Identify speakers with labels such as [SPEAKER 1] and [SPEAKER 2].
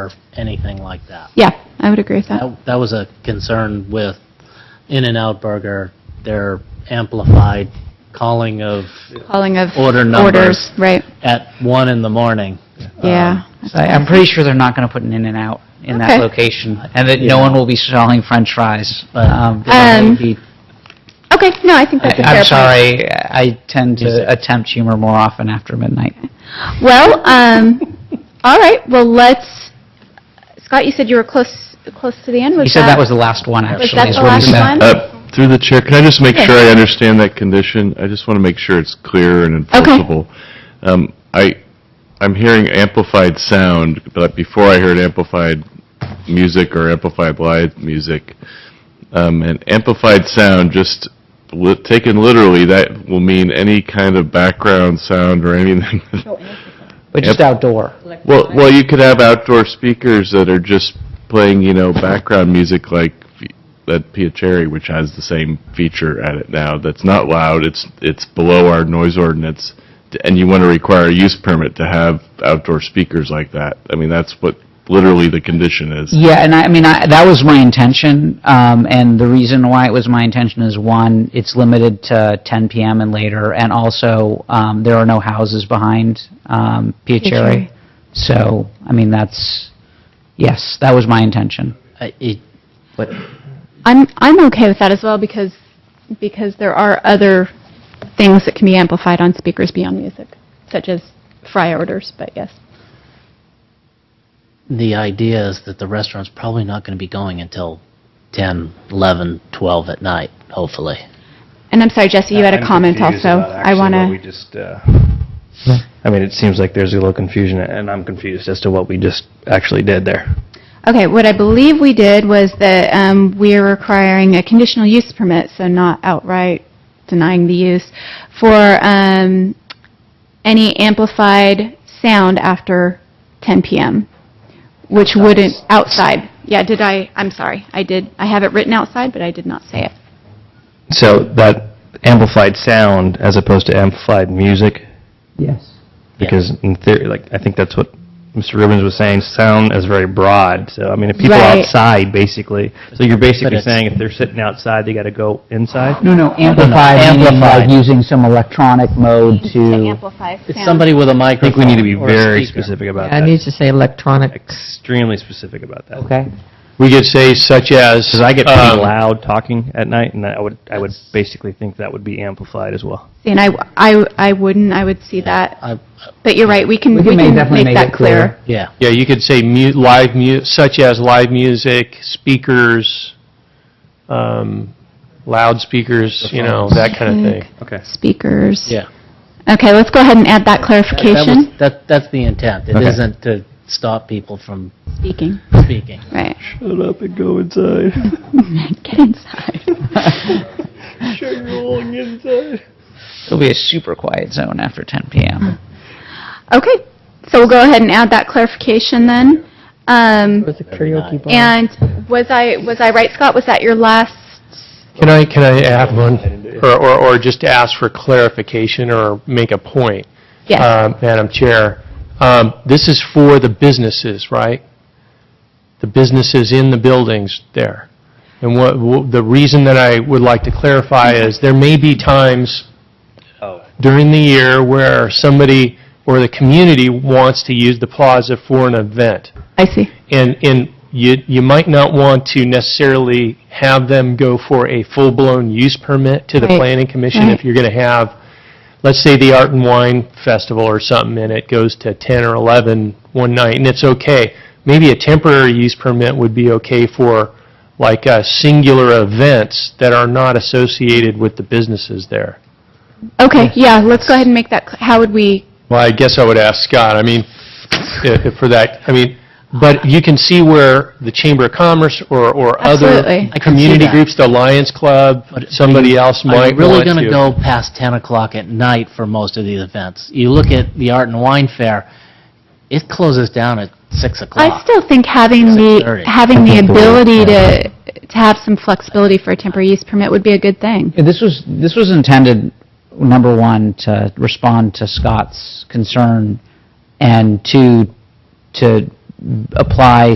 [SPEAKER 1] or anything like that.
[SPEAKER 2] Yeah, I would agree with that.
[SPEAKER 1] That that was a concern with In-N-Out Burger, their amplified calling of
[SPEAKER 2] Calling of
[SPEAKER 1] Order numbers. Um,
[SPEAKER 2] orders, right?
[SPEAKER 1] at one in the morning.
[SPEAKER 2] Yeah.
[SPEAKER 3] So I- I'm pretty sure they're not going to put an In-N-Out in that
[SPEAKER 2] Okay.
[SPEAKER 3] location, and that no one will be selling french fries.
[SPEAKER 1] Right.
[SPEAKER 3] um, because that
[SPEAKER 2] Um,
[SPEAKER 3] would be-
[SPEAKER 2] Okay, no, I think that's a
[SPEAKER 3] I-
[SPEAKER 2] fair
[SPEAKER 3] I'm
[SPEAKER 2] point.
[SPEAKER 3] sorry, I tend
[SPEAKER 1] Music.
[SPEAKER 3] to attempt humor more often after midnight.
[SPEAKER 2] Well, um, all right, well, let's, Scott, you said you were close, close to the end.
[SPEAKER 3] You said that was the last one, actually.
[SPEAKER 2] that
[SPEAKER 3] is
[SPEAKER 2] the
[SPEAKER 3] what
[SPEAKER 2] last
[SPEAKER 3] he said.
[SPEAKER 2] one?
[SPEAKER 4] Uh, Through the chair, can I just make
[SPEAKER 2] Yes.
[SPEAKER 4] sure I understand that condition? I just want to make sure it's clear and enforceable. Um, I, I'm hearing amplified sound, but before I heard amplified music or amplified live music. Um, And amplified sound, just li- taken literally, that will mean any kind of background sound or anything.
[SPEAKER 3] But just outdoor.
[SPEAKER 4] Well, well, you could have outdoor speakers that are just playing, you know, background music like f- that Pia Cherry, which has the same feature at it now. That's not loud. It's it's below our noise ordinance, D- and you want to require a use permit to have outdoor speakers like that. I mean, that's what literally the condition is.
[SPEAKER 3] Yeah, and I, I mean, I, that was my intention, um, and the reason why it was my intention is, one, it's limited to 10 PM and later, and also, um, there are no houses behind, um,
[SPEAKER 2] Piacere.
[SPEAKER 3] Piacere. So, I mean, that's, yes, that was my intention.
[SPEAKER 1] I- it-
[SPEAKER 2] I'm, I'm okay with that as well because, because there are other things that can be amplified on speakers beyond music, such as fry orders, but yes.
[SPEAKER 1] The idea is that the restaurant's probably not going to be going until 10, 11, 12 at night, hopefully.
[SPEAKER 2] And I'm sorry, Jesse, you had
[SPEAKER 5] Uh, I'm
[SPEAKER 2] a comment
[SPEAKER 5] confused
[SPEAKER 2] also.
[SPEAKER 5] about
[SPEAKER 2] I
[SPEAKER 5] actually
[SPEAKER 2] want
[SPEAKER 5] what we
[SPEAKER 2] to,
[SPEAKER 5] just, uh, I mean, it seems like there's a little confusion, and I'm confused as to what we just actually did there.
[SPEAKER 2] okay, what I believe we did was that um, we're requiring a conditional use permit, so not outright denying the use, for um, any amplified sound after 10 PM, which wouldn't, outside. Yeah, did I, I'm sorry, I did, I have it written outside, but I did not say it.
[SPEAKER 5] So that amplified sound as opposed to amplified music,
[SPEAKER 3] Yes.
[SPEAKER 5] because in theory, like, I think that's what Mr. Rubens was saying, sound is very broad, so, I mean, if people are
[SPEAKER 2] Right.
[SPEAKER 5] outside, basically, so you're
[SPEAKER 1] But
[SPEAKER 5] basically
[SPEAKER 1] it's-
[SPEAKER 5] saying if they're sitting outside, they gotta go inside?
[SPEAKER 3] No, no, amplified, meaning like
[SPEAKER 1] amplified.
[SPEAKER 3] using some electronic mode to,
[SPEAKER 2] amplify sound.
[SPEAKER 1] It's somebody with a
[SPEAKER 5] I
[SPEAKER 1] microphone
[SPEAKER 5] think we need to be
[SPEAKER 1] or a
[SPEAKER 5] very
[SPEAKER 1] speaker.
[SPEAKER 5] specific about
[SPEAKER 6] I need
[SPEAKER 5] that,
[SPEAKER 6] to say electronic,
[SPEAKER 5] extremely specific about that.
[SPEAKER 3] okay?
[SPEAKER 7] We could say such as.
[SPEAKER 5] Because I get pretty
[SPEAKER 7] um,
[SPEAKER 5] loud talking at night, and I would I would basically think that would be amplified as well.
[SPEAKER 2] See, And I, I, I wouldn't, I would see that,
[SPEAKER 1] I-
[SPEAKER 2] but you're right, we can,
[SPEAKER 3] We
[SPEAKER 2] we
[SPEAKER 3] can
[SPEAKER 2] can
[SPEAKER 3] make- definitely
[SPEAKER 2] make
[SPEAKER 3] make
[SPEAKER 2] that
[SPEAKER 3] it clear.
[SPEAKER 2] clear.
[SPEAKER 1] Yeah,
[SPEAKER 7] Yeah, you could say mu, live mu, such as live music, speakers, um, loudspeakers, you know, that kind of thing.
[SPEAKER 5] Okay.
[SPEAKER 2] Speakers.
[SPEAKER 1] yeah.
[SPEAKER 2] Okay, let's go ahead and add that
[SPEAKER 1] That- that was-
[SPEAKER 2] clarification.
[SPEAKER 1] That, that's the intent. It
[SPEAKER 5] Okay.
[SPEAKER 1] isn't to stop people from
[SPEAKER 2] Speaking,
[SPEAKER 1] speaking.
[SPEAKER 2] right.
[SPEAKER 5] Shut up and go inside.
[SPEAKER 2] Get inside.
[SPEAKER 5] Shut your long inside.
[SPEAKER 3] It'll be a super quiet zone after 10 PM.
[SPEAKER 2] Okay, so we'll go ahead and add that clarification then. Um,
[SPEAKER 6] was a karaoke bar.
[SPEAKER 2] and was I, was I right, Scott? Was that your last?
[SPEAKER 7] Can I, can I add one, or, or or just ask for clarification or make a point?
[SPEAKER 2] Yes,
[SPEAKER 7] uh, Madam Chair, um, this is for the businesses, right? The businesses in the buildings there. And what, wh- the reason that I would like to clarify is there may be times during the year where somebody or the community wants to use the plaza for an event.
[SPEAKER 2] I see.
[SPEAKER 7] And, and you, you might not want to necessarily have them go for a full-blown use permit to the
[SPEAKER 2] Right.
[SPEAKER 7] planning commission
[SPEAKER 2] Right.
[SPEAKER 7] if you're going to have, let's say, the Art and Wine Festival or something, and it goes to 10 or 11 one night, and it's okay. Maybe a temporary use permit would be okay for, like, uh, singular events that are not associated with the businesses there.
[SPEAKER 2] Okay, yeah, let's go ahead and make that, cl- how would we,
[SPEAKER 7] Well, I guess I would ask Scott, I mean, i- i- for that, I mean, but you can see where the Chamber of Commerce or, or other
[SPEAKER 2] Absolutely.
[SPEAKER 1] I can see
[SPEAKER 7] community
[SPEAKER 1] that.
[SPEAKER 7] groups, the Lions Club,
[SPEAKER 1] But are
[SPEAKER 7] somebody else
[SPEAKER 1] Are you
[SPEAKER 7] might
[SPEAKER 1] really
[SPEAKER 7] want
[SPEAKER 1] going to
[SPEAKER 7] to.
[SPEAKER 1] go past 10 o'clock at night for most of these events? You look at the Art and Wine Fair, it closes down at 6
[SPEAKER 2] I
[SPEAKER 1] o'clock.
[SPEAKER 2] still think having the,
[SPEAKER 1] 6:30.
[SPEAKER 2] having the ability to, to have some flexibility for a temporary use permit would be a good thing.
[SPEAKER 3] Yeah, This was, this was intended, number one, to respond to Scott's concern, and two, to apply